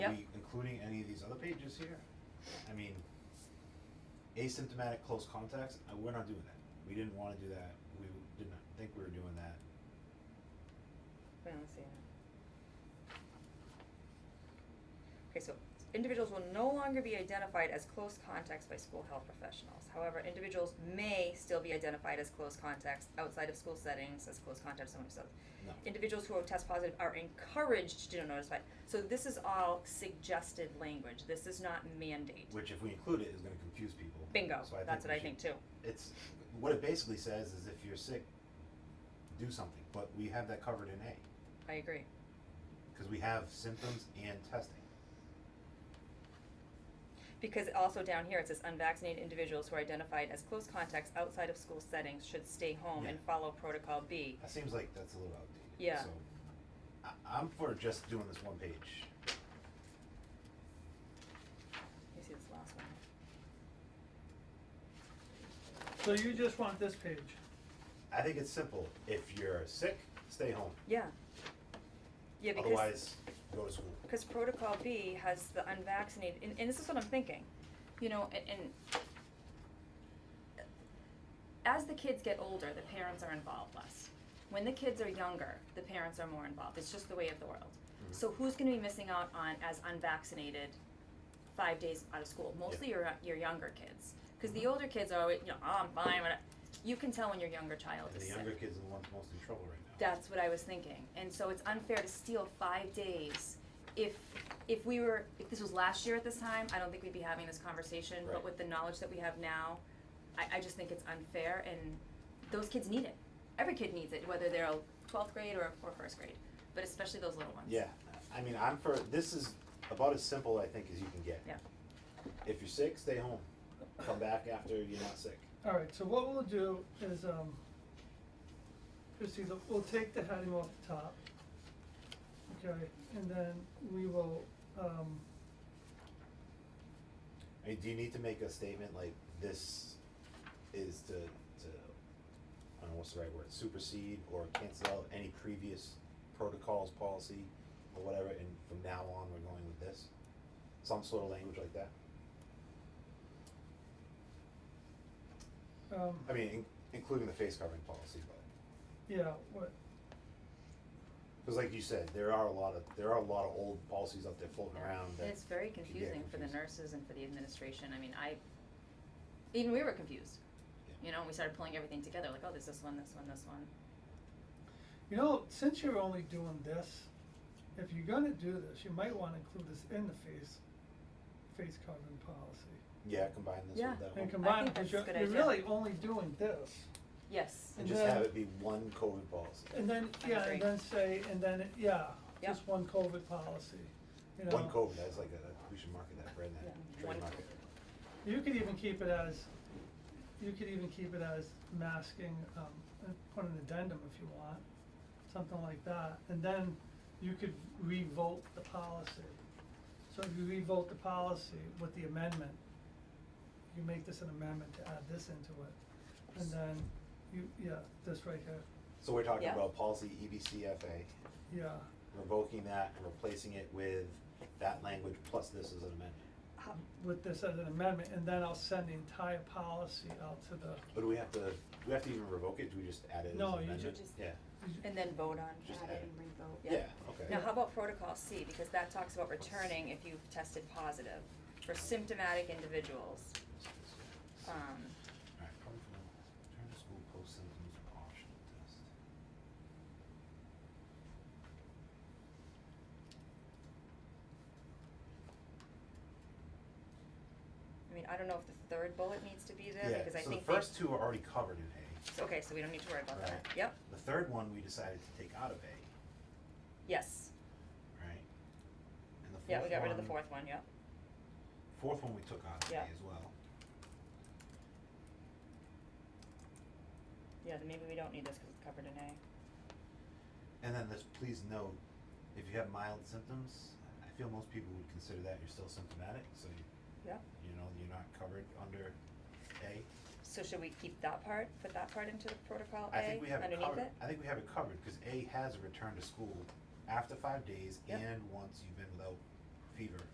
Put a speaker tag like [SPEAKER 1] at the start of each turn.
[SPEAKER 1] including any of these other pages here? I mean, asymptomatic close contacts, uh, we're not doing that. We didn't wanna do that, we did not think we were doing that.
[SPEAKER 2] Wait, let's see. Okay, so individuals will no longer be identified as close contacts by school health professionals. However, individuals may still be identified as close contacts outside of school settings as close contacts among themselves.
[SPEAKER 1] No.
[SPEAKER 2] Individuals who are test positive are encouraged to notify. So this is all suggested language. This is not mandate.
[SPEAKER 1] Which if we include it is gonna confuse people.
[SPEAKER 2] Bingo.
[SPEAKER 1] So I
[SPEAKER 2] That's
[SPEAKER 1] think
[SPEAKER 2] what
[SPEAKER 1] we
[SPEAKER 2] I think
[SPEAKER 1] should-
[SPEAKER 2] too.
[SPEAKER 1] It's, what it basically says is if you're sick, do something, but we have that covered in A,
[SPEAKER 2] I agree.
[SPEAKER 1] cause we have symptoms and testing.
[SPEAKER 2] Because also down here, it says unvaccinated individuals who are identified as close contacts outside of school settings should stay home and
[SPEAKER 1] Yeah.
[SPEAKER 2] follow protocol B.
[SPEAKER 1] That seems like that's a little outdated.
[SPEAKER 2] Yeah.
[SPEAKER 1] So, I, I'm for just doing this one page.
[SPEAKER 2] You see this last one?
[SPEAKER 3] So you just want this page?
[SPEAKER 1] I think it's simple. If you're sick, stay home.
[SPEAKER 2] Yeah. Yeah, because,
[SPEAKER 1] Otherwise, go to school.
[SPEAKER 2] because protocol B has the unvaccinated, and, and this is what I'm thinking, you know, and, and as the kids get older, the parents are involved less. When the kids are younger, the parents are more involved. It's just the way of the world.
[SPEAKER 1] Mhm.
[SPEAKER 2] So who's going to be missing out on as unvaccinated five days out of school? Mostly your your younger kids, because
[SPEAKER 1] Mm-hmm.
[SPEAKER 2] the older kids are always, you know, oh, I'm fine. But you can tell when your younger child
[SPEAKER 1] And
[SPEAKER 2] is
[SPEAKER 1] the
[SPEAKER 2] sick.
[SPEAKER 1] younger kids are the ones most in trouble right now.
[SPEAKER 2] That's what I was thinking, and so it's unfair to steal five days. If, if we were, if this was last year at this time, I don't think we'd be having this conversation, but
[SPEAKER 1] Right.
[SPEAKER 2] with the knowledge that we have now, I, I just think it's unfair, and those kids need it. Every kid needs it, whether they're a twelfth grade or, or first grade, but especially those little ones.
[SPEAKER 1] Yeah, I mean, I'm for, this is about as simple, I think, as you can get.
[SPEAKER 2] Yeah.
[SPEAKER 1] If you're sick, stay home. Come back after you're not sick.
[SPEAKER 3] Alright, so what we'll do is, um, Christie, the- we'll take the heading off the top. Okay, and then we will, um,
[SPEAKER 1] I mean, do you need to make a statement like this is to, to, I don't know what's the right word, supersede or cancel out any previous protocols, policy, or whatever, and from now on, we're going with this? Some sort of language like that?
[SPEAKER 3] um,
[SPEAKER 1] I mean, in- including the face covering policy, but,
[SPEAKER 3] yeah, what,
[SPEAKER 1] because like you said, there are a lot of, there are a lot of old policies out there floating around that.
[SPEAKER 2] And it's very
[SPEAKER 1] could get
[SPEAKER 2] confusing for the
[SPEAKER 1] confusing.
[SPEAKER 2] nurses and for the administration, I mean, I, even we were confused.
[SPEAKER 1] Yeah.
[SPEAKER 2] You know, we started pulling everything together, like, oh, there's this one, this one, this one.
[SPEAKER 3] you know, since you're only doing this, if you're gonna do this, you might wanna include this in the face, face covering policy.
[SPEAKER 1] Yeah, combine this
[SPEAKER 2] Yeah.
[SPEAKER 1] with that
[SPEAKER 3] And
[SPEAKER 1] one.
[SPEAKER 3] combine,
[SPEAKER 2] think
[SPEAKER 3] cause
[SPEAKER 2] that's a
[SPEAKER 3] you're,
[SPEAKER 2] good
[SPEAKER 3] you're
[SPEAKER 2] idea.
[SPEAKER 3] really only doing this.
[SPEAKER 2] Yes.
[SPEAKER 1] And
[SPEAKER 3] And
[SPEAKER 1] just
[SPEAKER 3] then-
[SPEAKER 1] have it be one COVID policy.
[SPEAKER 3] And then,
[SPEAKER 2] I
[SPEAKER 3] yeah,
[SPEAKER 2] agree.
[SPEAKER 3] and then say, and then, yeah,
[SPEAKER 2] Yeah.
[SPEAKER 3] just one COVID policy, you know.
[SPEAKER 1] One COVID, that's like a, we should market that, brand that,
[SPEAKER 2] Yeah. One
[SPEAKER 1] trademark it.
[SPEAKER 2] COVID.
[SPEAKER 3] You could even keep it as, you could even keep it as masking, um, and put an addendum if you want, something like that, and then you could revote the policy. So if you revote the policy with the amendment, you make this an amendment to add this into it, and then you, yeah, this right here,
[SPEAKER 1] So we're talking
[SPEAKER 2] Yeah.
[SPEAKER 1] about policy E EBCFA,
[SPEAKER 3] yeah.
[SPEAKER 1] revoking that and replacing it with that language plus this as an amendment.
[SPEAKER 2] How-
[SPEAKER 3] with this as an amendment, and then I'll send the entire policy out to the,
[SPEAKER 1] But do we have to, do we have to even revoke it? Do we just add it as an
[SPEAKER 3] No, you
[SPEAKER 1] amendment?
[SPEAKER 4] just-
[SPEAKER 1] Yeah,
[SPEAKER 2] And then vote on.
[SPEAKER 1] Just
[SPEAKER 4] add
[SPEAKER 1] add it.
[SPEAKER 4] it and revote.
[SPEAKER 2] Yeah.
[SPEAKER 1] yeah, okay.
[SPEAKER 2] Now, how about protocol C, because that talks about returning if you've tested positive for symptomatic individuals. Um,
[SPEAKER 1] Alright, probably for now. return to school post symptoms or optional test.
[SPEAKER 2] I mean, I don't know if the third bullet needs to be there, because I
[SPEAKER 1] Yeah, so the
[SPEAKER 2] think they.
[SPEAKER 1] first two are already covered in A.
[SPEAKER 2] so- Okay, so we don't need to worry about that.
[SPEAKER 1] Right.
[SPEAKER 2] Yep,
[SPEAKER 1] The third one, we decided to take out of A,
[SPEAKER 2] yes,
[SPEAKER 1] right? And the fourth one.
[SPEAKER 2] yeah, we got rid of the fourth one, yep,
[SPEAKER 1] Fourth one we took out of A
[SPEAKER 2] Yeah.
[SPEAKER 1] as well.
[SPEAKER 2] yeah, then maybe we don't need this, cause it's covered in A.
[SPEAKER 1] And then this, please note, if you have mild symptoms, I feel most people would consider that you're still symptomatic, so you,
[SPEAKER 2] Yep,
[SPEAKER 1] you know, you're not covered under A.
[SPEAKER 2] so should we keep that part, put that part into the protocol A
[SPEAKER 1] I think we have it
[SPEAKER 2] underneath it?
[SPEAKER 1] covered, I think we have it covered, cause A has a return to school after five days
[SPEAKER 2] Yep.
[SPEAKER 1] and once you've been without fever